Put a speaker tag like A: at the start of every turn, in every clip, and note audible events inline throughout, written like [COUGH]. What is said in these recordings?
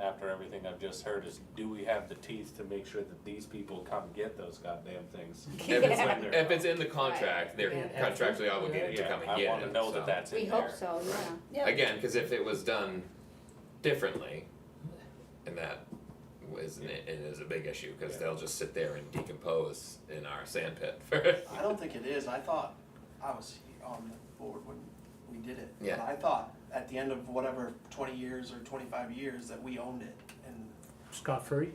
A: after everything I've just heard is, do we have the teeth to make sure that these people come get those goddamn
B: [LAUGHS]
A: things?
C: If it's,
A: Yeah.
C: if it's in the contract, they're
B: Yeah.
C: contractually obligated to
A: Yeah,
C: come and get
A: I
C: it.
A: wanna know that
C: so.
A: that's
B: We
A: in
B: hope
A: there.
B: so, yeah.
D: Yeah.
C: Again, because if it was done differently, and that was and it is a big issue because
A: Yeah.
C: they'll just sit there and decompose in our sand pit for.
E: I don't think it is, I thought, I was on the board when we did it.
C: Yeah.
E: And I thought at the end of whatever, twenty years or twenty-five years, that we owned it and,
F: scot free,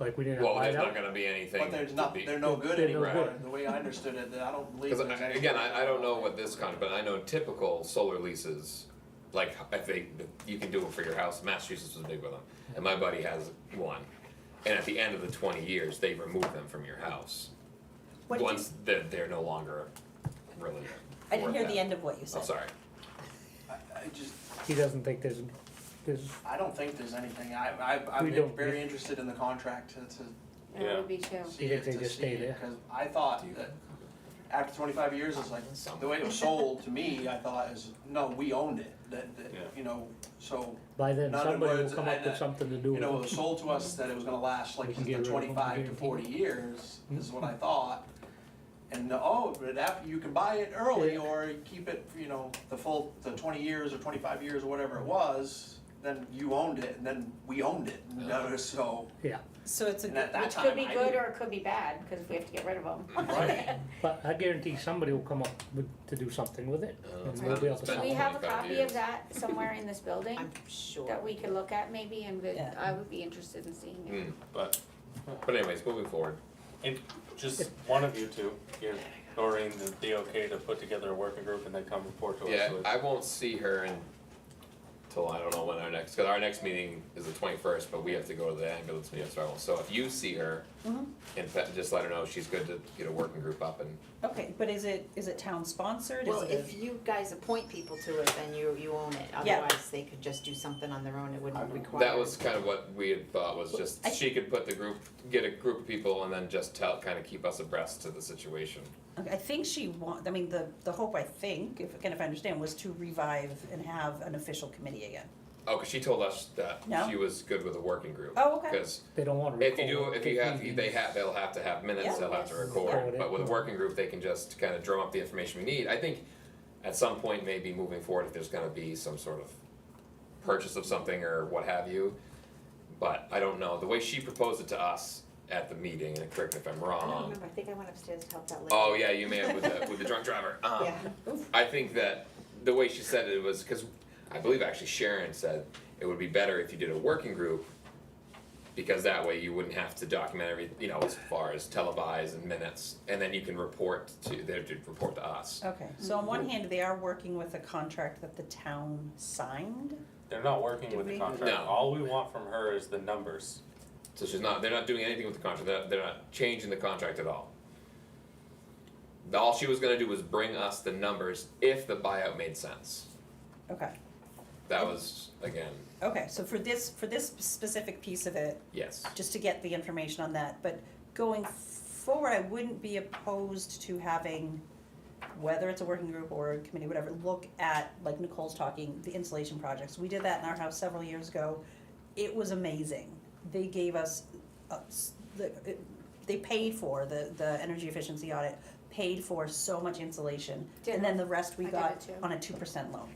F: like we didn't
C: well,
F: buy
C: there's
F: it
C: not
F: out.
C: going to be anything.
E: but there's not,
C: to be,
E: they're no good
F: They're no
E: anymore.
F: good.
E: The way I understood it, that I don't believe
C: Because
E: there's any.
C: again, I, I don't know what this contract, but I know typical solar leases, like if they, you can do it for your house. Massachusetts was big with them, and my buddy has one. And at the end of the twenty years, they remove them from your house.
D: What did you-
C: Once they're, they're no longer really.
D: I didn't
C: worth
D: hear
C: that.
D: the end of what you said.
C: Oh,
D: [LAUGHS]
C: sorry.
E: I, I just,
F: He doesn't think there's, there's,
E: I don't think there's anything, I, I, I'm
F: We don't-
E: very interested in the contract to, to
B: That would be too.
E: see
F: You think
E: it,
F: they
E: to
F: just
E: see
F: stay
E: it,
F: there?
E: Cause I thought
C: Do you-
E: that after twenty-five years, it's like, the way it was sold to me, I thought is, no, we owned it, that, that,
A: Yeah.
E: you know, so.
F: by then
E: Not in
F: somebody will
E: words,
F: come
E: I-
F: up
E: I-
F: with something to do
E: You
F: with
E: know, it
F: it.
E: was sold to us that it was gonna last like
F: We can
E: the
F: get rid of them,
E: twenty-five to
F: guarantee.
E: forty years, is what I thought. And, oh, but after, you can buy it early
F: Yeah.
E: or keep it, you know, the full, the twenty years or twenty-five years or whatever it was, then you owned it, and then we owned it, and that was [LAUGHS] so.
F: Yeah,
D: So it's a
E: And at
D: good,
E: that
B: Which
E: time,
B: could be
E: I
B: good
E: didn't-
B: or it could be bad, because we have to get rid of them.
E: [LAUGHS]
C: Mm.
E: Right.
F: but I guarantee somebody will come up with, to do something with it,
C: Uh,
F: and
C: it's
F: we'll
C: not-
F: be
C: it's
F: able to.
C: been
B: [LAUGHS] Do
F: sell
B: we
F: it.
B: have a
C: 25
B: copy
C: years.
B: of that somewhere in this building
D: I'm sure.
B: that we could look at maybe and would-
D: Yeah.
B: I would be interested in seeing it?
C: Mm.
A: But,
C: But anyways, moving forward.
A: and just one of you two, give Doreen the, the okay to put together a working group and then come report to us.
C: Yeah,
A: with-
C: I won't see her until I don't know when our next, because our next meeting is the twenty-first, but we have to go to the ambulance meeting, so I won't. So if you see her,
D: Mhm.
C: in fact, just let her know she's good to get a working group up and
D: Okay, but is it, is it town sponsored? Is
G: Well,
D: it-
G: if you guys appoint people to it, then you, you own it,
D: Yeah.
G: otherwise they could just do something on their own, it wouldn't require.
C: that was kind of what we had thought was just,
D: I-
C: she could put the group, get a group of people and then just tell, kind of keep us abreast to the situation.
D: Okay, I think she want, I mean, the, the hope, I think, if, again, if I understand, was to revive and have an official committee again.
C: Oh, because she told us that
D: No.
C: she was good with a working group.
D: Oh, okay.
C: Because
F: They don't wanna record.
C: If you do, if you
F: it.
C: have, they have, they'll have to have
D: Yeah.
C: minutes, they'll have to
F: Record
C: record,
F: it.
C: but with a working group, they can just kind of drum up the information we need, I think at some point, maybe moving forward, if there's gonna be some sort of purchase of something or what have you, but I don't know, the way she proposed it to us at the meeting, and correct me if I'm
G: I don't
C: wrong,
G: remember, I think I went upstairs to help that lady.
C: oh yeah, you may have with the, with the drunk driver, um,
G: Yeah.
C: I think that the way she said it was because I believe actually Sharon said it would be better if you did a working group because that way you wouldn't have to document every you know as far as televise and minutes and then you can report to they to report to us.
D: Okay, so on one hand, they are working with a contract that the town signed.
A: They're not working
D: Did
A: with the
D: we-
A: contract,
C: No.
A: all we want from her is the numbers.
C: So she's not they're not doing anything with the contract. They're, they're not changing the contract at all. All she was gonna do was bring us the numbers if the buyout made sense.
D: Okay,
C: That was again
D: okay, so for this, for this specific piece of it,
C: yes.
D: just to get the information on that, but going forward, I wouldn't be opposed to having, whether it's a working group or a committee, whatever, look at, like Nicole's talking, the insulation projects, we did that in our house several years ago. It was amazing, they gave us, uh, s- the, it- they paid for, the, the energy efficiency audit paid for so much insulation, and then the rest we
B: I did
D: got
B: it too.
D: on a two percent loan.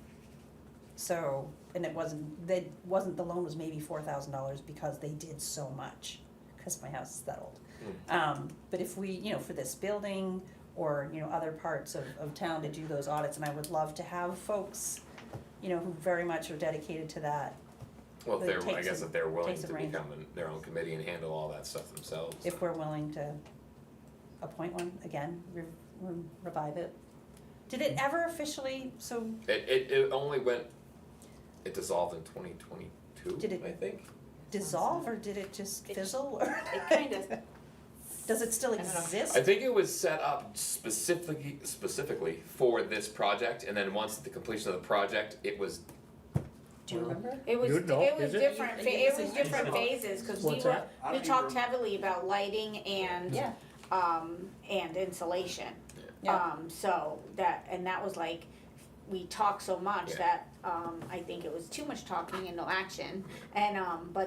D: So, and it wasn't, they, wasn't, the loan was maybe four thousand dollars because they did so much, cause my house is that old. Um, but if we, you know, for this building or, you know, other parts of, of town to do those audits, and I would love to have folks, you know, who very much are dedicated to that,
C: Well, if
D: But it
C: they're, I
D: takes
C: guess
D: a-
C: if they're willing
D: takes a
C: to
D: range.
C: become an- their own committee and handle all that stuff themselves. then-
D: if we're willing to appoint one again, re- re- revive it. Did it ever officially, so
C: It, it, it only went, it dissolved in twenty twenty-two,
D: Did it-
C: I think.
D: dissolve or did it just
G: It just-
D: fizzle or?
G: It
D: [LAUGHS]
G: kind of,
D: Does it still
G: I don't know.
D: exist?
C: I think it was set up specifically, specifically for this project, and then once the completion of the project, it was,
D: Do you remember?
B: It was,
F: You'd know,
B: it was
F: is it?
B: different, fa- it was different
A: What's
B: phases, cause we
F: What's
B: were,
F: that?
E: I
B: we
E: don't
B: talked
E: even-
B: heavily about lighting and,
D: Yeah.
B: um, and insulation.
D: Yeah.
B: Um, so that, and that was like, we talked so much
C: Yeah.
B: that, um, I think it was too much talking and no action, and, um, but